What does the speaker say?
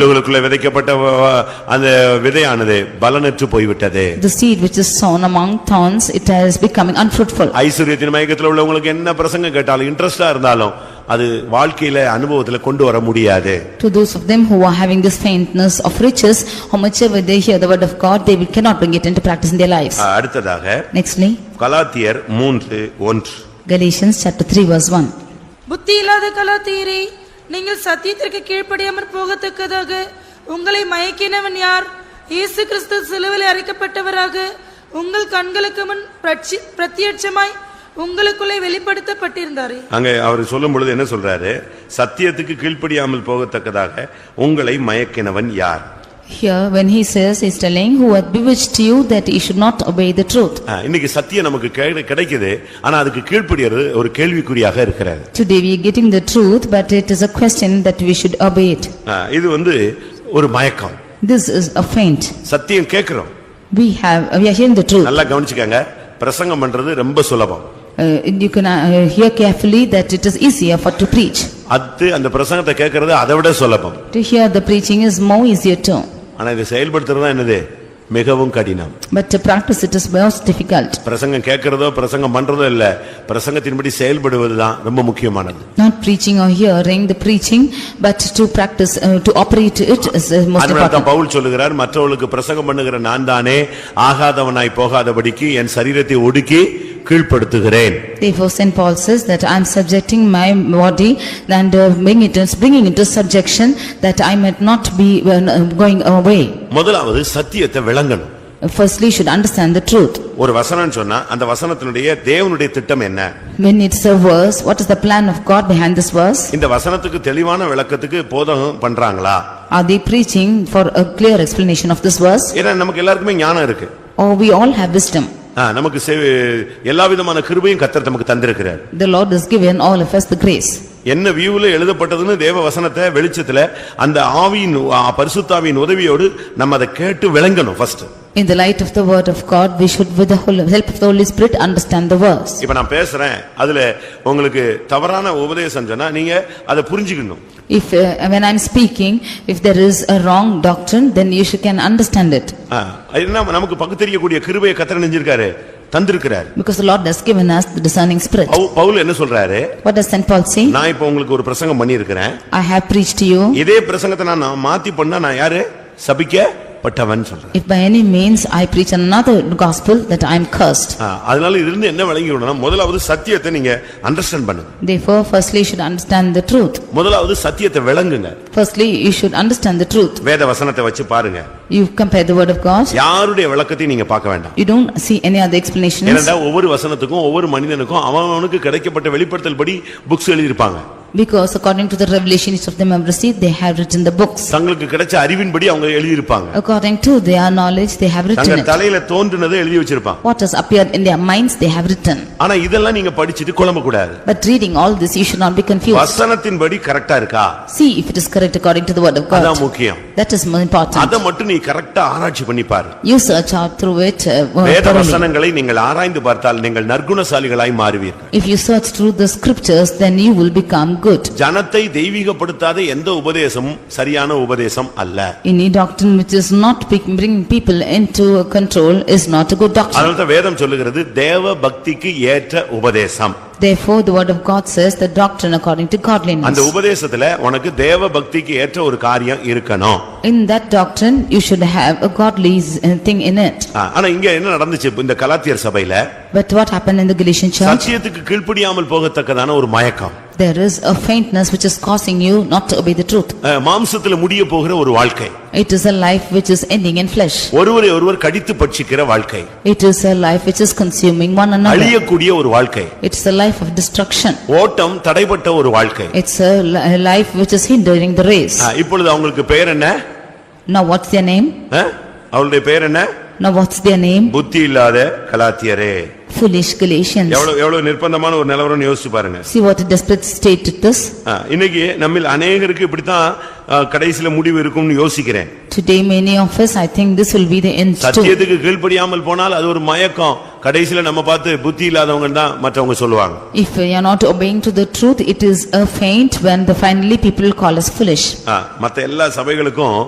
உள்ளுகளுக்குள்ளே விதைக்கப்பட்ட வ- வ- அந்த விதையானது பலனற்று போய்விட்டது The seed which is sown among thorns, it is becoming unfruitful. ஐஸ்வர்யத்தின் மயக்கத்துல உள்ளவங்களுக்கு என்ன பிரசங்கம் கேட்டாலும் இன்ட்ரெஸ்டா இருந்தாலும் அது வாழ்க்கையில அனுபவத்துல கொண்டு வர முடியாது To those of them who are having this faintness of riches, how much ever they hear the word of God, they will- cannot bring it into practice in their lives. அஹ், அடுத்ததாக Nextly, கலாத்தியர் மூன்று ஒன்று Galatians chapter 3 verse 1. புத்தி இல்லாத கலாத்தீரே நீங்கள் சத்தியத்திற்கு கீழ்ப்படியாமற் போகத்தக்கதாக உங்களை மயக்கினவன் யார் இயேசு கிறிஸ்து சிலுவையில் அறைக்கப்பட்டவராக உங்கள் கண்களுக்கு முன் பிரட்சி- பிரத்யட்சமாய் உங்களுக்குள்ளே வெளிப்படுத்தப்பட்டிருந்தாரே அங்க அவர் சொல்லும் பொழுது என்ன சொல்றாரு சத்தியத்துக்கு கீழ்ப்படியாமல் போகத்தக்கதாக உங்களை மயக்கினவன் யார் Here, when he says, he is telling, "Who hath bewitched you that ye should not obey the truth?" அஹ், இன்னைக்கு சத்தியம் நமக்கு கே- கிடைக்குது ஆனா அதுக்கு கீழ்ப்படியறது ஒரு கேள்விக்குறியாக இருக்கிறது Today we are getting the truth, but it is a question that we should obey it. அஹ், இது வந்து ஒரு மயக்கம் This is a feint. சத்தியம் கேட்கிறோம் We have, we are hearing the truth. நல்லா கவனிச்சுக்கங்க பிரசங்கம் பண்றது ரொம்ப சுலபம் Uh, You can uh, hear carefully that it is easier for to preach. அது அந்த பிரசங்கத்தை கேட்கறது அதை விட சுலபம் To hear the preaching is more easier too, ஆனா இதை செயல்படுத்துறது என்னது மிகவும் கடினம் but to practice it is most difficult. பிரசங்கம் கேட்கறதோ பிரசங்கம் பண்றதோ இல்ல பிரசங்கத்தின்படி செயல்படுவதுதான் ரொம்ப முக்கியமானது Not preaching or hearing the preaching, but to practice, uh, to operate it is uh, most அதனால தான் important. பவுல் சொல்லுகிறார் மற்றவர்களுக்கு பிரசங்கம் பண்ணுகிற நான் தானே ஆகாதவனாய் போகாதபடிக்கு என் சரீரத்தை ஒடுக்கி கீழ்ப்படுத்துகிறேன் Therefore Saint Paul says that I am subjecting my body and uh, bring it, bringing into subjection that I might not be uh, going away. முதலாவது சத்தியத்தை விளங்கணும் Firstly, you should understand the truth. ஒரு வசனம் சொன்னா அந்த வசனத்தினுடைய தேவனுடைய திட்டம் என்ன When it's a verse, what is the plan of God behind this verse? இந்த வசனத்துக்கு தெளிவான விளக்கத்துக்கு போதகம் பண்றாங்களா Are they preaching for a clear explanation of this verse? ஏன்னா நமக்கு எல்லாருக்குமே ஞானம் இருக்கு Or we all have wisdom? ஆ, நமக்கு செவி- எல்லா விதமான கிருபையும் கத்தர் நமக்கு தந்திருக்கிறார் The Lord has given all of us the grace. என்ன வியூல எழுதப்பட்டதுன்னு தேவ வசனத்தை வெளிச்சத்துல அந்த ஆவியின் ஆ, பரிசுத்தாவியின் உதவியோடு நம்ம அதை கேட்டு விளங்கணும் first In the light of the word of God, we should with the whole- help of the Holy Spirit understand the verse. இப்ப நான் பேசுறேன் அதுல உங்களுக்கு தவறான உபதேசம் சொன்னா நீங்க அதை புரிஞ்சுக்கணும் If, uh, when I'm speaking, if there is a wrong doctrine, then you should can understand it. ஆ, ஏன்னா நமக்கு பகுத்தறியக்கூடிய கிருபையை கத்தர் நெஞ்சிருக்காரு தந்திருக்கிறார் Because the Lord has given us the discerning spirit. பவு- பவுல் என்ன சொல்றாரு What does Saint Paul say? நான் இப்ப உங்களுக்கு ஒரு பிரசங்கம் பண்ணியிருக்கிறேன் I have preached to you, இதே பிரசங்கத்தை நான் நான் மாத்தி பண்ணா நான் யாரு சபிக்கப்பட்டவன் சொல்றேன் if by any means I preach another gospel, that I am cursed. ஆ, அதனால இதிலிருந்து என்ன விளங்கிக்கணும்னா முதலாவது சத்தியத்தை நீங்க அண்டர்ஸ்டாண்ட் பண்ணுங்க Therefore, firstly, you should understand the truth. முதலாவது சத்தியத்தை விளங்குங்க Firstly, you should understand the truth. வேத வசனத்தை வச்சு பாருங்க You compare the word of God, யாருடைய விளக்கத்தையும் நீங்க பார்க்க வேண்டாம் you don't see any other explanations. ஏனென்றா ஒவ்வொரு வசனத்துக்கும் ஒவ்வொரு மனிதனுக்கும் அவனுக்கு கிடைக்கப்பட்ட வெளிப்படுத்தல் படி புக்ஸ் எழுதியிருப்பாங்க Because according to the revelations of them have received, they have written the books. தங்களுக்கு கிடைச்ச அறிவின்படி அவங்க எழுதியிருப்பாங்க According to their knowledge, they have தங்க written it. தலையில தோன்றுனதை எழுதி வச்சிருப்பாங்க What has appeared in their minds, they have written. ஆனா இதெல்லாம் நீங்க படிச்சிட்டு குழம்ப கூடாது But reading all this, you should not be confused. வசனத்தின்படி கரெக்டா இருக்கா See if it is correct according to the word of அதான் God. முக்கியம் That is more important. அதை மட்டும் நீ கரெக்டா ஆராய்ச்சி பண்ணி பாரு You search out through it uh, வேத thoroughly. வசனங்களை நீங்கள் ஆராய்ந்து பார்த்தால் நீங்கள் நற்குணசாலிகளாய் மாறுவீர்கள் If you search through the scriptures, then you will become good. ஜனத்தை தெய்வீகப்படுத்தாத எந்த உபதேசமும் சரியான உபதேசம் அல்ல Any doctrine which is not pick- bringing people into control is not a good doctrine. அதனால்தான் வேதம் சொல்லுகிறது தேவ பக்திக்கு ஏற்ற உபதேசம் Therefore, the word of God says the doctrine according to அந்த godliness. உபதேசத்துல உனக்கு தேவ பக்திக்கு ஏற்ற ஒரு காரியம் இருக்கணும் In that doctrine, you should have a godly s- uh, thing in it. ஆ, ஆனா இங்க என்ன நடந்துச்சு இப்ப இந்த கலாத்தியர் சபையில But what happened in the Galatian church? சத்தியத்துக்கு கீழ்ப்படியாமல் போகத்தக்கதான ஒரு மயக்கம் There is a faintness which is causing you not to obey the truth. ஆ, மாம்சத்துல முடிய போகிற ஒரு வாழ்க்கை It is a life which is ending in flesh. ஒருவரை ஒருவர் கடித்து பட்சிக்கிற வாழ்க்கை It is a life which is consuming one another. அழியக்கூடிய ஒரு வாழ்க்கை It's a life of destruction. ஓட்டம் தடைப்பட்ட ஒரு வாழ்க்கை It's a li- a life which is hindering the race. ஆ, இப்பொழுது அவங்களுக்கு பெயர் என்ன Now what's their name? ஆ? அவளுடைய பெயர் என்ன Now what's their name? புத்தி இல்லாத கலாத்தியரே Foolish Galatians. எவ்வளவு எவ்வளவு நிர்பந்தமான ஒரு நிலவரம்னு யோசிச்சு பாருங்க See what a desperate state it is. ஆ, இன்னைக்கு நம்மில் அநேகருக்கு இப்படித்தான் ஆ, கடைசில முடிவு இருக்கும்னு யோசிக்கிறேன் Today many of us, I think this will be the end too. சத்தியத்துக்கு கீழ்ப்படியாமல் போனால் அது ஒரு மயக்கம் கடைசில நம்ம பார்த்து புத்தி இல்லாதவங்க தான் மற்றவங்க சொல்லுவாங்க If we are not obeying to the truth, it is a feint when the finally people call us foolish. ஆ, மத்த எல்லா சபைகளுக்கும்